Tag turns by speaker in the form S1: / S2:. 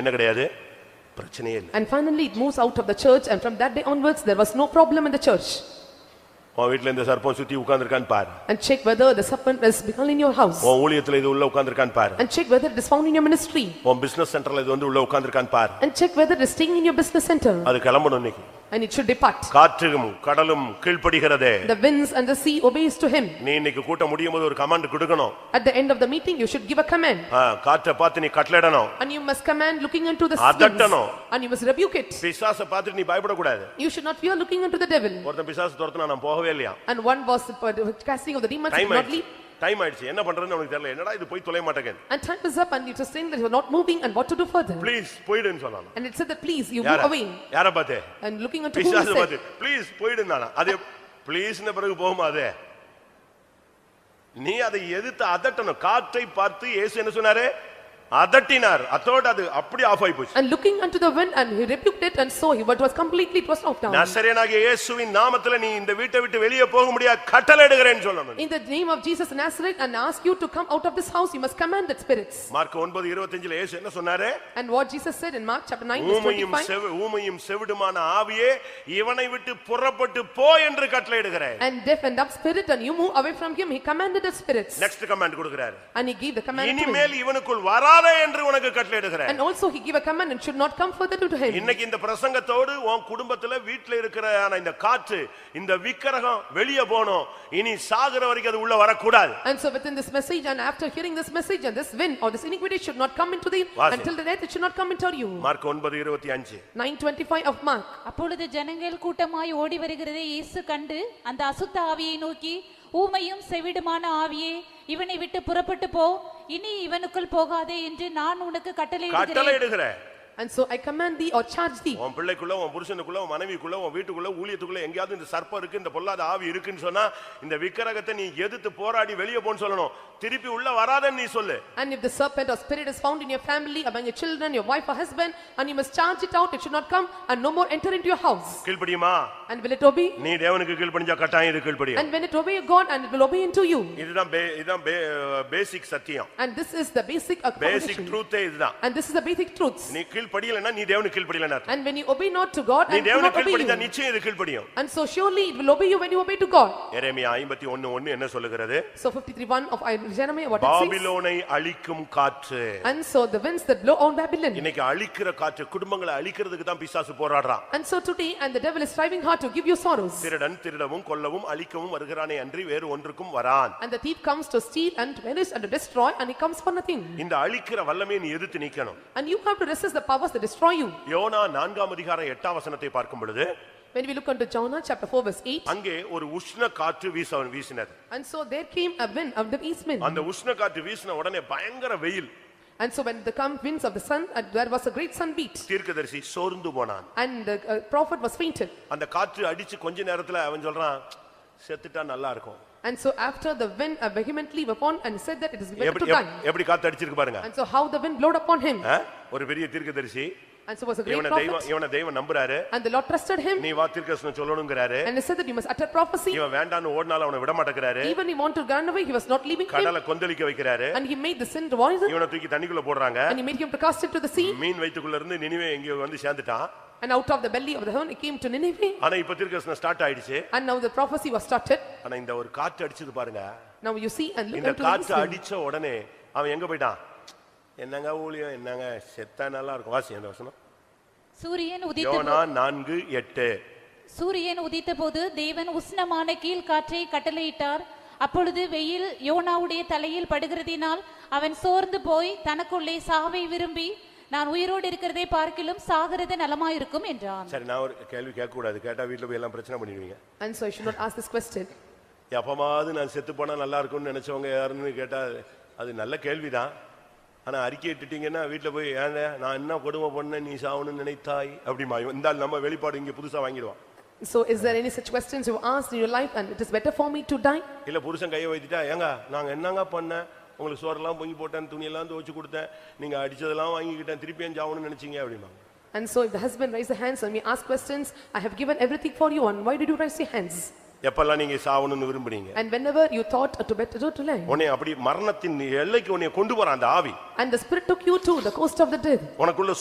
S1: என்ன கிடையாது பிரச்சனையே இல்லை
S2: And finally, it moves out of the church and from that day onwards, there was no problem in the church.
S1: உன் வீட்டுல இந்த சர்ப்பம் சுத்தி உட்கார்ந்திருக்கான்னு பாரு
S2: And check whether the serpent is become in your house.
S1: உன் ஊழியத்துல இது உள்ள உட்கார்ந்திருக்கான்னு பாரு
S2: And check whether it is found in your ministry.
S1: உன் பிசினஸ் சென்டர்ல இது வந்து உள்ள உட்கார்ந்திருக்கான்னு பாரு
S2: And check whether it is staying in your business center.
S1: அது கிளம்பணும் இன்னைக்கு
S2: And it should depart.
S1: காற்றும் கடலும் கீழ்ப்படுகிறதே
S2: The winds and the sea obeys to him.
S1: நீ இன்னைக்கு கூட்டம் முடியும் போது ஒரு கமாண்ட் கொடுக்கணும்
S2: At the end of the meeting, you should give a command.
S1: ஆ, காற்றை பார்த்து நீ கட்டளிடணும்
S2: And you must command looking into the
S1: அதட்டணும்.
S2: winds. And you must rebuke it.
S1: பிசாசை பார்த்துட்டு நீ பயப்படக்கூடாது
S2: You should not fear looking into the devil.
S1: ஒருத்தன் பிசாசு துரத்துனா நான் போகவே இல்லையா
S2: And one was uh, casting of the demons, he
S1: time
S2: did not
S1: ஆயிடுச்சு
S2: leave.
S1: டைம் ஆயிடுச்சு என்ன பண்றதுன்னு உனக்கு தெரியல என்னடா இது போய் தொலைய மாட்டேங்குது
S2: And time is up and it was saying that you are not moving and what to do further.
S1: Please போயிடுன்னு சொன்னான்
S2: And it said that please, you move
S1: யார
S2: away.
S1: யார பார்த்து
S2: And looking unto whom he
S1: பிசாசு
S2: said.
S1: பார்த்து please போயிடுனானா அது ப்ளீஸ்ன பிறகு போகுமா அது நீ அதை எதிர்த்து அதட்டணும் காற்றை பார்த்து இயேசு என்ன சொன்னாரு அதட்டினார் அதோட அது அப்படி ஆஃப் ஆயி போச்சு
S2: And looking unto the wind and he rebuked it and so he, but was completely, it was knocked down.
S1: நசரேனாகிய இயேசுவின் நாமத்துல நீ இந்த வீட்டை விட்டு வெளியே போக முடியாது கட்டளையிடுகிறேன்னு சொல்லணும்
S2: In the name of Jesus Nazareth and ask you to come out of this house, you must command that spirits.
S1: Mark ஒன்பது இருபத்தஞ்சுல இயேசு என்ன சொன்னாரு
S2: And what Jesus said in Mark chapter 9 verse
S1: ஊமையும்
S2: 25.
S1: செவி ஊமையும் செவிடுமான ஆவியே இவனை விட்டு புறப்பட்டு போ என்று கட்டளையிடுகிறேன்
S2: And deaf and dumb spirit and you move away from him, he commanded the spirits.
S1: Next command கொடுக்கிறாரு
S2: And he gave the command to him.
S1: இனிமேல் இவனுக்குள் வராதே என்று உனக்கு கட்டளையிடுகிறேன்
S2: And also he gave a command and should not come further to him.
S1: இன்னைக்கு இந்த பிரசங்கத்தோடு உன் குடும்பத்துல வீட்டுல இருக்கிற ஆன இந்த காற்று இந்த விக்கிரகம் வெளியே போகணும் இனி சாகுற வரைக்கும் அது உள்ள வரக்கூடாது
S2: And so within this message and after hearing this message and this wind or this iniquity should not come into thee
S1: வாசி.
S2: until the death it should not come into you.
S1: Mark ஒன்பது இருபத்தி அஞ்சு
S2: 9:25 of Mark.
S3: அப்பொழுது ஜனங்கள் கூட்டமாய் ஓடி வருகிறதை இயேசு கண்டு அந்த அசுத்த ஆவியை நோக்கி ஊமையும் செவிடுமான ஆவியே இவனை விட்டு புறப்பட்டு போ இனி இவனுக்குள் போகாதே என்று நான் உனக்கு கட்டளையிடுகிறேன்
S1: கட்டளையிடுகிறேன்
S2: And so I command thee or charge thee.
S1: உன் பிள்ளைக்குள்ள உன் புருஷனுக்குள்ள உன் மனைவிக்குள்ள உன் வீட்டுக்குள்ள ஊழியத்துக்குள்ள எங்கேயாவது இந்த சர்ப்பம் இருக்கு இந்த பொல்லாத ஆவி இருக்குன்னு சொன்னா இந்த விக்கிரகத்தை நீ எதிர்த்து போராடி வெளியே போன்னு சொல்லணும் திருப்பி உள்ள வராதன்னு நீ சொல்லு
S2: And if the serpent or spirit is found in your family, among your children, your wife or husband, and you must charge it out, it should not come and no more enter into your house.
S1: கீழ்ப்படியுமா
S2: And will it obey?
S1: நீ தேவனுக்கு கீழ்ப்படிஞ்சா கட்டாயம் இது கீழ்ப்படியும்
S2: And when it obey your God and it will obey into you.
S1: இதுதான் பே- இதுதான் பேசிக் சத்தியம்
S2: And this is the basic
S1: basic
S2: accommodation.
S1: ட்ரூத்தே இதுதான்
S2: And this is the basic truths.
S1: நீ கீழ்ப்படியலைன்னா நீ தேவனுக்கு கீழ்ப்படியலைன்னு அர்த்தம்
S2: And when you obey not to God
S1: நீ
S2: and do not
S1: தேவனுக்கு
S2: obey
S1: கீழ்ப்படிஞ்சா
S2: you.
S1: நிச்சயம் இது கீழ்ப்படியும்
S2: And so surely it will obey you when you obey to God.
S1: எரேமியா ஐம்பத்தி ஒண்ணு ஒண்ணு என்ன சொல்லுகிறது
S2: So 53:1 of I- Jeremiah what it says.
S1: பாபிலோனை அழிக்கும் காற்று
S2: And so the winds that blow on Babylon.
S1: இன்னைக்கு அழிக்கிற காற்று குடும்பங்களை அழிக்கிறதுக்கு தான் பிசாசு போராடுறான்
S2: And so today and the devil is striving hard to give you sorrows.
S1: திருடன் திருடவும் கொல்லவும் அழிக்கவும் வருகிறானே அன்றி வேறு ஒன்றுக்கும் வரான்
S2: And the thief comes to steal and to vanish and to destroy and he comes for nothing.
S1: இந்த அழிக்கிற வல்லமையை நீ எதிர்த்து நிக்கணும்
S2: And you have to resist the powers that destroy you.
S1: யோனா நான்காம் அதிகாரம் எட்டாம் வசனத்தை பார்க்கும் பொழுது
S2: When we look unto Jonah chapter 4 verse 8.
S1: அங்கே ஒரு உஷ்ண காற்று வீச வீசினது
S2: And so there came a wind of the east wind.
S1: அந்த உஷ்ண காற்று வீசின உடனே பயங்கர வெயில்
S2: And so when the come winds of the sun and there was a great sunbeat.
S1: தீர்க்கதரிசி சோர்ந்து போனான்
S2: And the uh, prophet was fainted.
S1: அந்த காற்று அடிச்சு கொஞ்ச நேரத்துல அவன் சொல்றான் செத்துட்டா நல்லா இருக்கும்
S2: And so after the wind uh, vehemently upon and said that it is better to
S1: எப்படி
S2: die.
S1: எப்படி காத்து அடிச்சிருக்கு பாருங்க
S2: And so how the wind blowed upon him.
S1: ஆ? ஒரு பெரிய தீர்க்கதரிசி
S2: And so was a great
S1: இவனை தெய்வம்
S2: prophet.
S1: இவனை தெய்வம் நம்புறாரு
S2: And the Lord trusted him
S1: நீ வா தீர்க்கதரிசனம் சொல்லணுங்கிறாரு
S2: and he said that you must utter prophecy.
S1: இவன் வேண்டான்னு ஓடினாலும் அவனை விட மாட்டேங்கிறாரு
S2: Even he wanted to run away, he was not leaving him.
S1: கடலை கொந்தளிக்க வைக்கிறாரு
S2: And he made the sin voice
S1: இவனை தூக்கி தண்ணிக்குள்ள போடுறாங்க
S2: and he made him to cast it to the sea.
S1: மீன் வயிற்றுக்குள்ள இருந்து நினைவே எங்க வந்து சேர்ந்துட்டான்
S2: And out of the belly of the heaven he came to Nineveh.
S1: ஆனா இப்ப தீர்க்கதரிசனம் ஸ்டார்ட் ஆயிடுச்சு
S2: And now the prophecy was started.
S1: ஆனா இந்த ஒரு காற்று அடிச்சது பாருங்க
S2: Now you see and look
S1: இந்த
S2: unto the east
S1: காற்று
S2: wind.
S1: அடிச்ச உடனே அவன் எங்க போயிட்டான் என்னங்க ஊழியம் என்னங்க செத்தா நல்லா இருக்கும் வாசி அந்த வசனம்
S3: சூரியன் உதித்த
S1: யோனா நான்கு எட்டு
S3: சூரியன் உதித்தபோது தேவன் உஷ்ணமான கீழ்காற்றை கட்டளையிட்டார் அப்பொழுது வெயில் யோனாவுடைய தலையில் படுகிறதினால் அவன் சோர்ந்து போய் தனக்குள்ளே சாவை விரும்பி நான் உயிரோடு இருக்கிறதை பார்க்கிலும் சாகிறது நலமாயிருக்கும் என்றான்
S1: சரி நான் ஒரு கேள்வி கேட்க கூடாது கேட்டா வீட்டுல போய் எல்லாம் பிரச்சனை பண்ணிடுவீங்க
S2: And so I should not ask this question.
S1: எப்பமாவது நான் செத்து போனா நல்லா இருக்கும்னு நினைச்சவங்க யாருன்னு கேட்டா அது நல்ல கேள்விதான் ஆனா அறிக்கை இட்டுட்டீங்கன்னா வீட்டுல போய் ஏன் நான் என்ன கொடுமை பண்ணேன் நீ சாவணும்னு நினைத்தாய் அப்படிமா இந்த ஆள் நம்ம வெளிப்பாடு இங்க புதுசா வாங்கிடுவான்
S2: So is there any such questions you asked in your life and it is better for me to die?
S1: இல்ல புருஷன் கையை வைத்துட்டா ஏங்க நாங்க என்னங்க பண்ணேன் உங்களுக்கு சோறெல்லாம் பொங்கி போட்டேன் துணியெல்லாம் துவைச்சு கொடுத்தேன் நீங்க அடிச்சதெல்லாம் வாங்கிக்கிட்டேன் திருப்பியும் சாவணும்னு நினைச்சீங்க அப்படிமா
S2: And so if the husband raise the hands and we ask questions, I have given everything for you and why did you raise your hands?
S1: எப்பெல்லாம் நீங்க சாவணும்னு விரும்புறீங்க
S2: And whenever you thought to better to live.
S1: உன்னை அப்படி மரணத்தின் எல்லைக்கு உன்னை கொண்டு போறான் அந்த ஆவி
S2: And the spirit took you to the coast of the dead.
S1: உனக்குள்ள